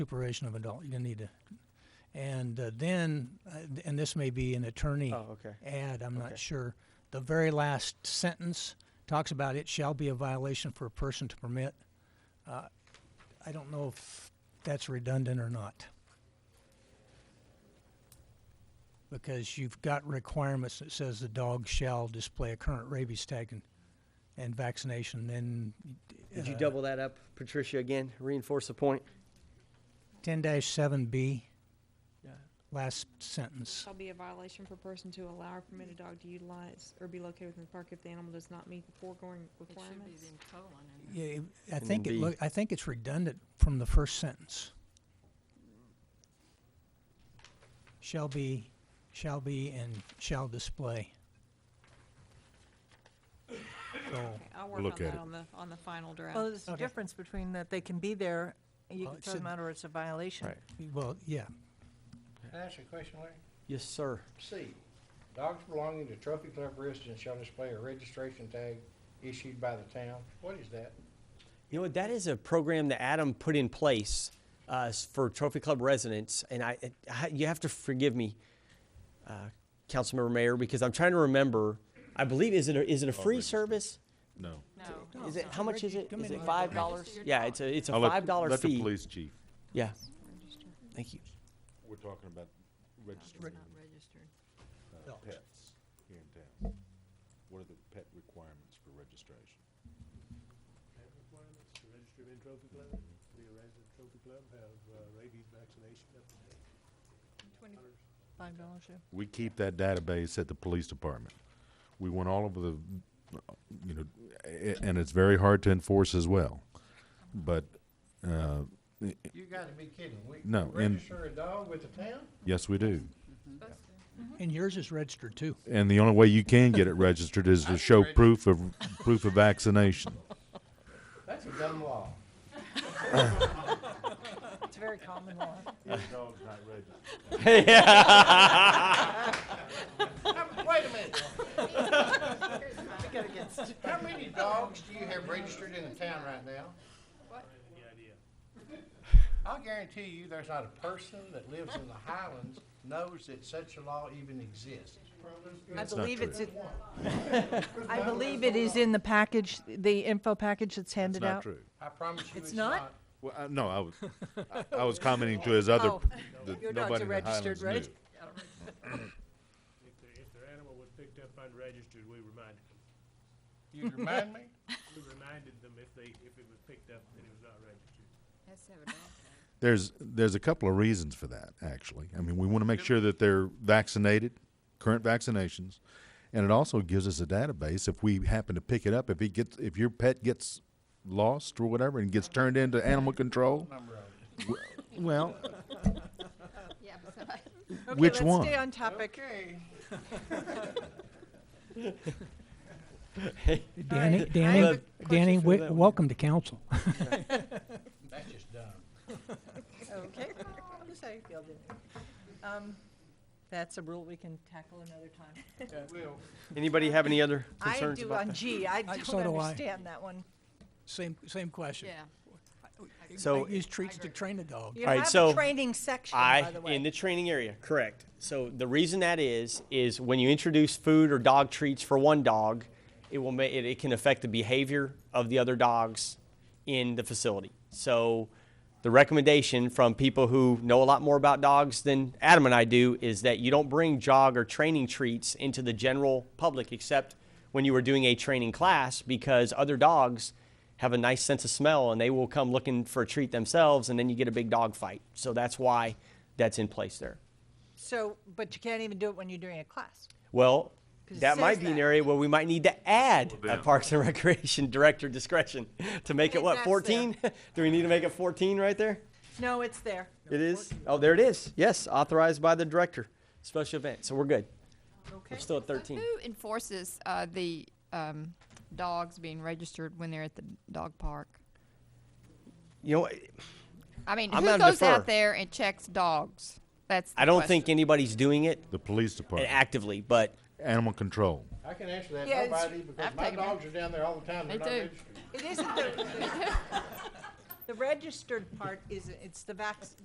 supervision of adult, you need to, and uh, then, uh, and this may be an attorney Oh, okay. add, I'm Okay. not sure. The very last sentence talks about it shall be a violation for a person to permit. Uh, I don't know if that's redundant or not. Because you've got requirements that says the dog shall display a current rabies tag and, and vaccination, then. Did you uh, double that up, Patricia, again? Reinforce the point? Ten dash seven B, Yeah. last sentence. Shall be a violation for a person to allow or permit a dog to utilize or be located within the park if the animal does not meet the foregoing It should be requirements. in colon and Yeah, it- I And think then it, B. look- I think it's redundant from the first sentence. Shall be, shall be, and shall display. So, Okay, I'll work Look on at that it. on the, on the final draft. Well, there's a Okay. difference between that they can be there, and you Well, can it throw them should- out, or it's a violation. Right. well, yeah, Can I ask you a question, Larry? Yes, sir. C, dogs belonging to trophy club residents shall display a registration tag issued by the town. What is that? You know, what, that is a program that Adam put in place uh, s- for Trophy Club residents, and I, it- I- you have to forgive me, uh, Councilmember Mayor, because I'm trying to remember. I believe is it a, is it a free service? No. No. Is it how much is it? Come Is in it and five dollars? register your Yeah, dog. it's a it's a I'll let- five dollar Let the fee. police chief. Yeah. Thank you. We're talking about it's registering not registered. uh, Adults. pets here in town. What are the pet requirements for registration? have requirements to register in Trophy Club, to be a resident of Trophy Club, have uh, rabies vaccination up to date. Five dollars, yeah. We keep that database at the police department. We went all over the, you know, a- and it's very hard to enforce as well. But, uh, You gotta be kidding. We No, we and- Register a dog with the town? yes, we do. and yours is registered too. And the only way you can get it registered is to show proof of, proof of vaccination. That's a dumb law. It's very common law. Wait a minute. How many dogs do you have registered in the town right now? I'll guarantee you, there's not a person that lives in the Highlands knows that such a law even exists. I believe true. it's, in- I believe it is in the package, the info package that's handed out. I promise you, It's it's not? not. Well, I, no, I was, I, I was commenting to his other, Oh. that Your dogs nobody are in the registered, Highlands right? knew. If their, if their animal was picked up unregistered, we reminded them. You remind me? We reminded them if they, if it was picked up and it was not registered. Has to have a dog tag. There's, there's a couple of reasons for that, actually. I mean, we want to make sure that they're vaccinated, current vaccinations. And it also gives us a database if we happen to pick it up, if it gets, if your pet gets lost or whatever and gets turned into animal control. w- Well, Yeah, but somebody. Which Okay, one? let's stay on topic. Danny, right. I have Danny, a Danny, question for we- that one. welcome to council. That's just dumb. Okay. Just how you feel, Denny. Um, That's a rule we can tackle another time. Will, Anybody have any other I concerns do about on that? G, I I- don't Uh, so do I. understand that one. Same, same question. Yeah. So- Use treats to train a dog. You All right, have a so training section, I by the way. in the training area, correct. So the reason that is is when you introduce food or dog treats for one dog, it will ma- it, it can affect the behavior of the other dogs in the facility. So the recommendation from people who know a lot more about dogs than Adam and I do is that you don't bring jog or training treats into the general public except when you are doing a training class because other dogs have a nice sense of smell and they will come looking for a treat themselves and then you get a big dog fight. So that's why that's in place there. So, but you can't even do it when you're doing a class. Well, 'Cause it that might says be an that. area where we might need to add a Parks and Recreation director discretion to make it If what, that's there. 14? Do we need to make it 14 right there? No, it's there. It is? Oh, there it is. Yes, authorized by the director. Special event. So we're good. Okay. We're still at 13. Who enforces uh, the um, dogs being registered when they're at the dog park? You know, what? I mean, I'm who gonna goes defer. out there and checks dogs? That's. The I don't question. think anybody's doing it The police department, actively, but animal control. I can answer that, Yeah, it's- nobody, because I've my taken it. dogs are down there all the time, they're They not do. registered. It isn't the, The registered part is, it's the vac,